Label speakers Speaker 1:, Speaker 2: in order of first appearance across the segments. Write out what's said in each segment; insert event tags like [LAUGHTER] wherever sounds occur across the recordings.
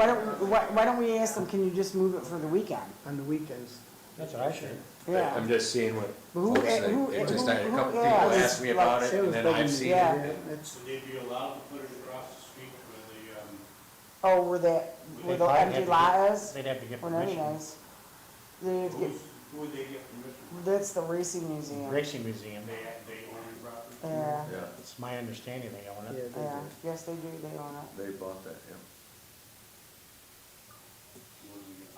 Speaker 1: Why don't, why, why don't we ask them, can you just move it for the weekend?
Speaker 2: on the weekends.
Speaker 3: That's what I should.
Speaker 1: Yeah.
Speaker 4: I'm just seeing what
Speaker 1: But who-
Speaker 4: folks say.
Speaker 1: who-
Speaker 4: It just, I had a
Speaker 1: who-
Speaker 4: couple
Speaker 1: who-
Speaker 4: people
Speaker 1: yeah,
Speaker 2: it's
Speaker 4: asked me about
Speaker 2: like
Speaker 4: it, and then
Speaker 2: sales
Speaker 4: I've
Speaker 2: bugging.
Speaker 4: seen
Speaker 1: Yeah.
Speaker 4: it.
Speaker 2: It's,
Speaker 5: Would they be allowed to put it across the street where the, um,
Speaker 1: Oh, where that, where the
Speaker 3: They'd probably
Speaker 1: empty
Speaker 3: have to
Speaker 1: lot
Speaker 3: get-
Speaker 1: is,
Speaker 3: They'd have to get
Speaker 1: or none of
Speaker 3: permission.
Speaker 1: those. They have to get,
Speaker 5: who's, who would they get permission?
Speaker 1: that's the racing museum.
Speaker 3: Racing museum,
Speaker 5: They, they own the property?
Speaker 2: Uh,
Speaker 1: Yeah,
Speaker 4: Yeah,
Speaker 3: it's my understanding they
Speaker 2: yeah,
Speaker 3: own
Speaker 2: they
Speaker 3: it.
Speaker 2: do.
Speaker 1: yeah, yes, they do, they own it.
Speaker 4: they bought that, yeah.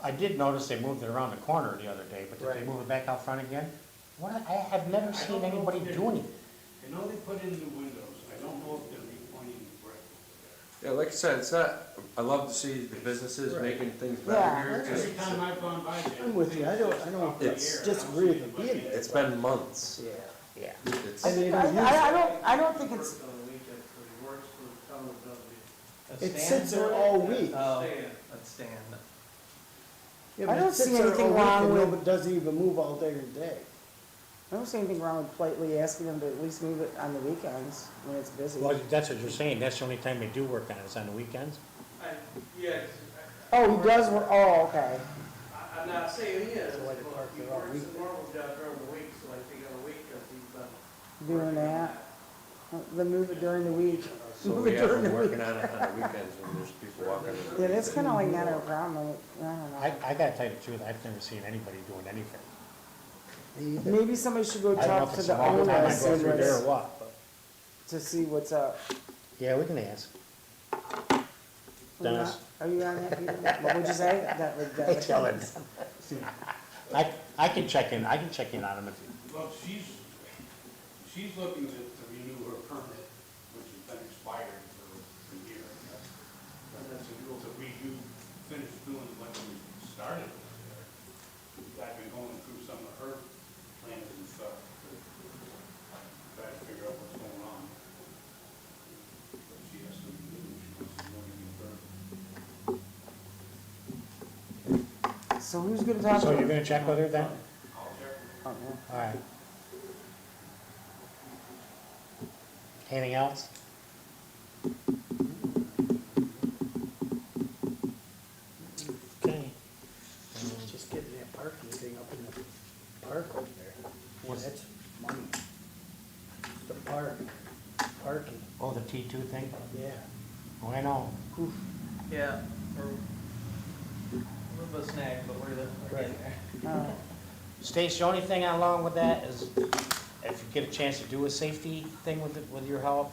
Speaker 3: I did notice they moved it around the corner the other day, but did
Speaker 2: Right.
Speaker 3: they move it back out front again? What, I have never
Speaker 5: don't
Speaker 3: seen
Speaker 5: know if
Speaker 3: anybody
Speaker 5: they-
Speaker 3: doing it.
Speaker 5: I know they put in the windows, I don't know if they're repointing the brick.
Speaker 4: Yeah, like I said, it's not, I love to see the businesses making things better
Speaker 1: Yeah.
Speaker 4: here.
Speaker 5: Every time
Speaker 4: It's-
Speaker 5: I've gone by there.
Speaker 2: I'm with you. I don't- I don't disagree with them being
Speaker 4: It's been months.
Speaker 2: Yeah.
Speaker 3: Yeah.
Speaker 4: It's,
Speaker 1: I,
Speaker 2: And they
Speaker 1: I,
Speaker 2: don't
Speaker 1: I I don't, I don't think it's,
Speaker 5: Works on the weekend, but it works for the town of
Speaker 2: It sits there all week.
Speaker 6: Oh,
Speaker 5: Stand.
Speaker 6: let's stand.
Speaker 1: I
Speaker 2: Yeah, but it
Speaker 1: don't
Speaker 2: sits
Speaker 1: see
Speaker 2: there
Speaker 1: anything
Speaker 2: all week
Speaker 1: wrong
Speaker 2: and
Speaker 1: with-
Speaker 2: nobody- Doesn't even move all day or day.
Speaker 1: I don't see anything wrong with politely asking them to at least move it on the weekends when it's busy.
Speaker 3: Well, that's what you're saying, that's the only time they do work on it, is on the weekends?
Speaker 6: Yes,
Speaker 1: Oh, he does, wor- oh, okay,
Speaker 6: I- I'm not saying he is,
Speaker 2: So why they
Speaker 6: but
Speaker 2: park
Speaker 6: he
Speaker 2: there all
Speaker 6: works
Speaker 2: week?
Speaker 6: the normal job during the week, so I think on the weekends he's done.
Speaker 1: doing that, then move it during the week.
Speaker 4: so we have them working on it on the weekends when there's people walking. around.
Speaker 1: Yeah, that's kinda like not a problem, I don't know.
Speaker 3: I, I gotta tell you the truth, I've never seen anybody doing anything.
Speaker 1: Maybe somebody should go
Speaker 3: I don't know
Speaker 1: talk
Speaker 3: if
Speaker 1: to
Speaker 3: it's a
Speaker 1: the
Speaker 3: long time I
Speaker 1: owners
Speaker 3: go
Speaker 1: and
Speaker 3: through there or
Speaker 1: let's-
Speaker 3: what, but,
Speaker 1: to see what's up.
Speaker 3: yeah, we can ask.
Speaker 1: Are you
Speaker 3: Dennis.
Speaker 1: on- Are you on that, Peter? What would you say? That would, that
Speaker 3: Hey,
Speaker 1: would.
Speaker 3: tell him. I, [LAUGHS] I can check in, I can check in on them if you.
Speaker 5: Well, she's, she's looking to to renew her permit, which has been expired for a year. But that's a rule that we do finish doing what we started with there. I've been going through some of her plans and stuff, to try to figure out what's going on. But she has to renew, she wants to renew her permit.
Speaker 1: So who's gonna talk to
Speaker 3: So you're
Speaker 1: him?
Speaker 3: gonna check with her then?
Speaker 5: I'll check with her.
Speaker 1: Oh, yeah.
Speaker 3: All right. Anything else? Okay.
Speaker 2: Just getting that parking thing up in the park over there.
Speaker 3: What's-
Speaker 2: That's money. The park, parking,
Speaker 3: Oh, the T two thing?
Speaker 2: yeah.
Speaker 3: Oh, I know.
Speaker 6: Yeah, we're a little bit snagged, but we're, the- we're getting
Speaker 2: Right.
Speaker 6: there.
Speaker 1: Uh,
Speaker 3: Stace, the only thing along with that is if you get a chance to do a safety thing with, it- with your help,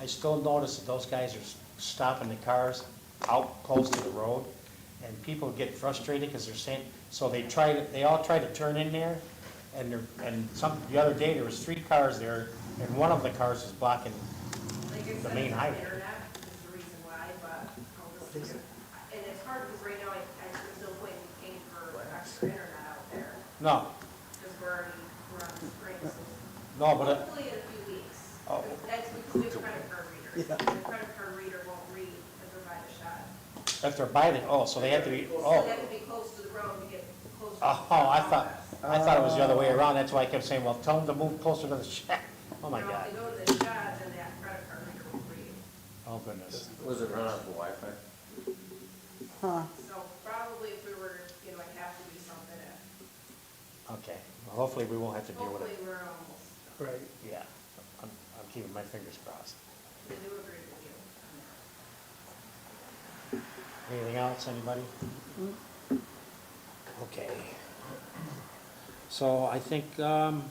Speaker 3: I still notice that those guys are s- stopping the cars out close to the road and people get frustrated because they're saying, so they try to, they all try to turn in there and they're, and some, the other day there was three cars there and one of the cars is blocking
Speaker 7: Like I
Speaker 3: The
Speaker 7: said,
Speaker 3: main
Speaker 7: it's
Speaker 3: highway.
Speaker 7: the internet is the reason why, but I'll just, and it's hard because right now, I, I, there's no point in paying for extra internet out there,
Speaker 3: No,
Speaker 7: because we're already, we're on the spring, so
Speaker 3: no, but, uh,
Speaker 7: hopefully in a few weeks.
Speaker 3: Oh.
Speaker 7: That's because we have credit card readers, the credit card reader won't read if they're by the shot.
Speaker 3: if they're by the, oh, so they have to be,
Speaker 7: So
Speaker 3: oh.
Speaker 7: they have to be close to the road to get close. to the
Speaker 3: Oh, I thought,
Speaker 7: office.
Speaker 3: I thought it was the other way around, that's why I kept saying, well, tell them to move closer to the shack. Oh my
Speaker 7: Now,
Speaker 3: God,
Speaker 7: if they go to the shot, then that credit card reader won't read.
Speaker 3: oh goodness.
Speaker 4: Was it run off the Wi-Fi?
Speaker 1: Huh,
Speaker 7: So probably if we were, you know, I'd have to do something, if-
Speaker 3: Okay, well, hopefully we won't have to deal with
Speaker 7: hopefully
Speaker 3: it.
Speaker 7: we're almost.
Speaker 2: Right.
Speaker 3: Yeah, I'm, I'm keeping my fingers crossed.
Speaker 7: I do agree with you.
Speaker 3: Anything else, anybody? Okay. So I think, um,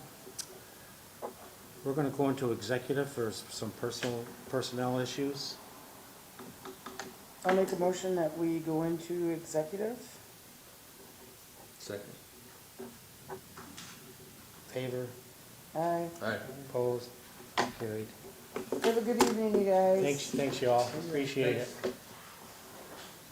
Speaker 3: we're gonna go into executive for s- some personal, personnel issues.
Speaker 1: I'll make a motion that we go into executive.
Speaker 4: Second.
Speaker 3: Favor,
Speaker 1: Uh,
Speaker 4: All right.
Speaker 3: opposed, carried.
Speaker 1: have a good evening, you guys.
Speaker 3: Thanks, thanks y'all, appreciate it.